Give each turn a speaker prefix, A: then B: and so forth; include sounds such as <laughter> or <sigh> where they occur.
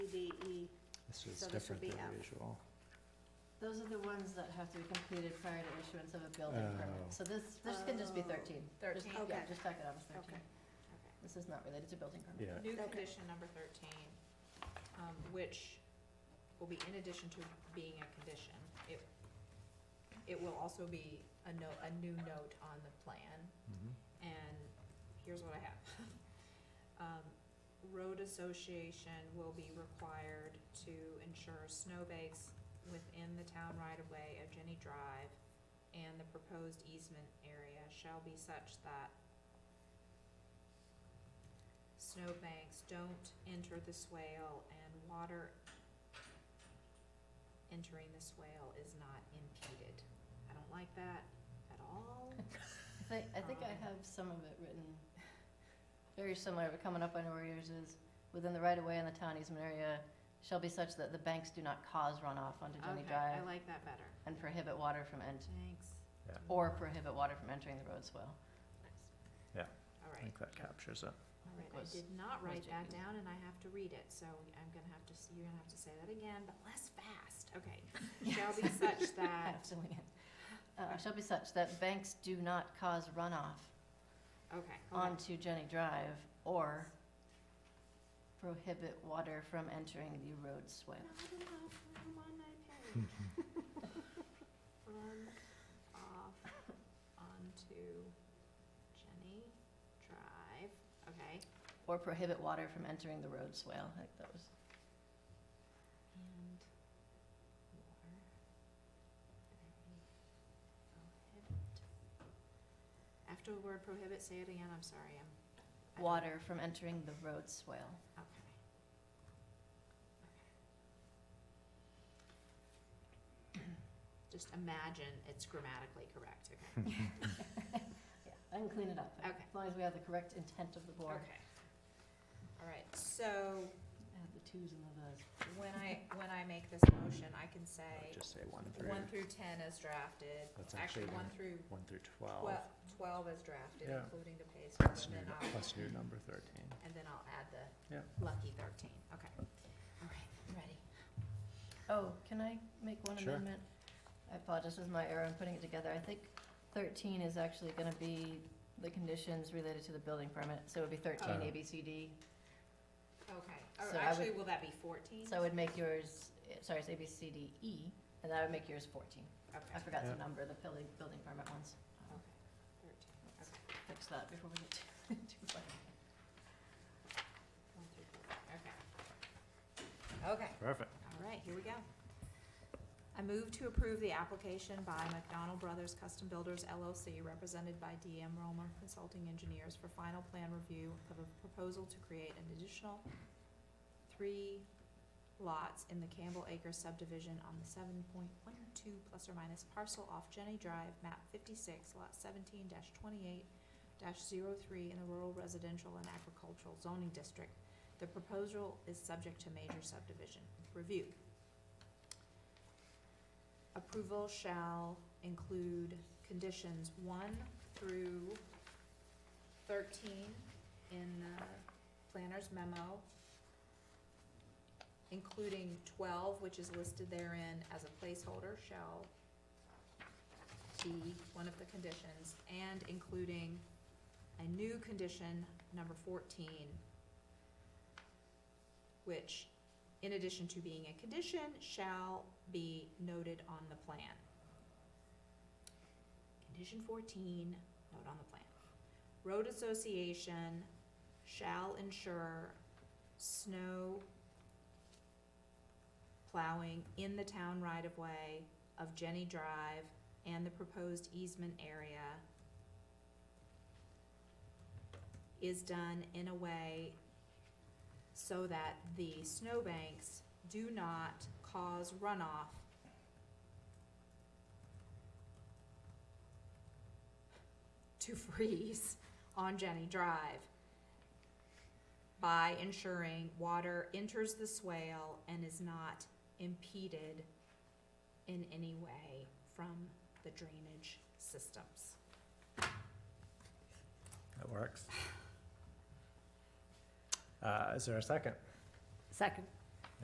A: CBE.
B: This
A: So
B: is
A: this would
B: different
A: be
B: than
A: F.
B: usual.
C: Those are the ones that have to be completed prior to issuance of a building
B: Oh.
C: permit. So this, this can just be
A: Oh.
C: thirteen. Just-
D: 13.
C: Yeah,
A: Okay.
C: just tack it on as
A: Okay.
C: thirteen.
A: Okay.
C: This is not related to building permit.
B: Yeah,
D: New
A: Okay.
D: condition number thirteen, um, which will be in addition to being a condition, it, it will also be a note, a new note on the plan,
B: mhm.
D: and here's what I have. <laughs> Um, road association will be required to ensure snowbanks within the town right-of-way of Jenny Drive and the proposed easement area shall be such that snowbanks don't enter the swale and water entering the swale is not impeded. I don't like that at all.
C: I think, I think I
D: Um,
C: have some of it written <laughs> very similar, but coming up on where yours is, within the right of way in the town easement area shall be such that the banks do not cause runoff onto <laughs> Jenny
D: Okay, I
C: Drive
D: like that better.
C: and prohibit water from ent,
D: Thanks.
B: Yeah.
C: or prohibit water from entering the road swell.
B: Yeah.
D: All
B: I
D: right,
B: think that captures it.
D: all right, I
C: Was-
D: did not write that
C: Jacob.
D: down and I have to read it, so I'm gonna have to, s- you're gonna have to say that again, but less fast, okay.
C: <laughs>
D: Shall be such that,
C: Absolutely. Uh, shall be such that banks do not cause runoff
D: okay, hold on.
C: onto Jenny Drive or prohibit water from entering the road swale.
D: No, I didn't have room on my page. Run off onto Jenny Drive, okay,
C: Or prohibit water from entering the road swale, I think that was,
D: and water. Prohibit. After the word prohibit, say it again, I'm sorry, I'm. I don't-
C: water from entering the road swale.
D: Okay. <clears throat> Just imagine it's grammatically correct, okay?
C: Yeah, I can clean it up.
D: Okay.
C: As long as we have the correct intent of the board.
D: All right, so
C: Add the twos and the thes.
D: when I, when I make this motion, I can say
B: Just say one
D: one
B: through,
D: through ten as drafted,
B: That's
D: actually
B: actually
D: one
B: the-
D: through
B: one through twelve,
D: twelve, twelve as drafted,
B: Yeah.
D: including the pay scale,
B: plus
D: and
B: new,
D: then
B: nu-
D: I'll,
B: plus new number thirteen.
D: and then I'll add the
B: Yeah.
D: lucky thirteen, okay. All right, I'm ready.
C: Oh, can I make one
B: Sure.
C: amendment? I apologize, this is my error in putting it together. I think thirteen is actually gonna be the conditions related to the building permit, so it would be thirteen
B: Oh.
C: A, B, C, D.
D: Okay, or
C: So I
D: actually, will that be fourteen?
C: So I would make yours, eh, sorry, it's A, B, C, D, E, and that would make yours fourteen. I
D: Okay.
C: forgot
B: Yeah.
C: to number the building, building permit ones. I'll
D: Okay, thirteen, okay,
C: Fix that before we get too, <laughs> too far.
D: one through four, okay. Okay,
B: Perfect.
D: all right, here we go. I move to approve the application by McDonald Brothers Custom Builders LLC, represented by DM Roma Consulting Engineers for final plan review of a proposal to create an additional three lots in the Campbell Acres subdivision on the seven point one two plus or minus parcel off Jenny Drive, map fifty-six, lot seventeen twenty-eight dash in the rural residential and agricultural zoning district. The proposal is subject to major subdivision review. Approval shall include conditions one through thirteen in the planner's memo, including twelve, which is listed therein as a placeholder, shall be one of the conditions, and including a new condition, number fourteen, which, in addition to being a condition, shall be noted on the plan. Condition fourteen, note on the plan. Road association shall ensure snow plowing in the town right-of-way of Jenny Drive and the proposed easement area is done in a way so that the snowbanks do not cause runoff. <laughs> To freeze on Jenny Drive by ensuring water enters the swale and is not impeded in any way from the drainage systems.
B: That <sighs> works. Uh, is there a second?
C: Second.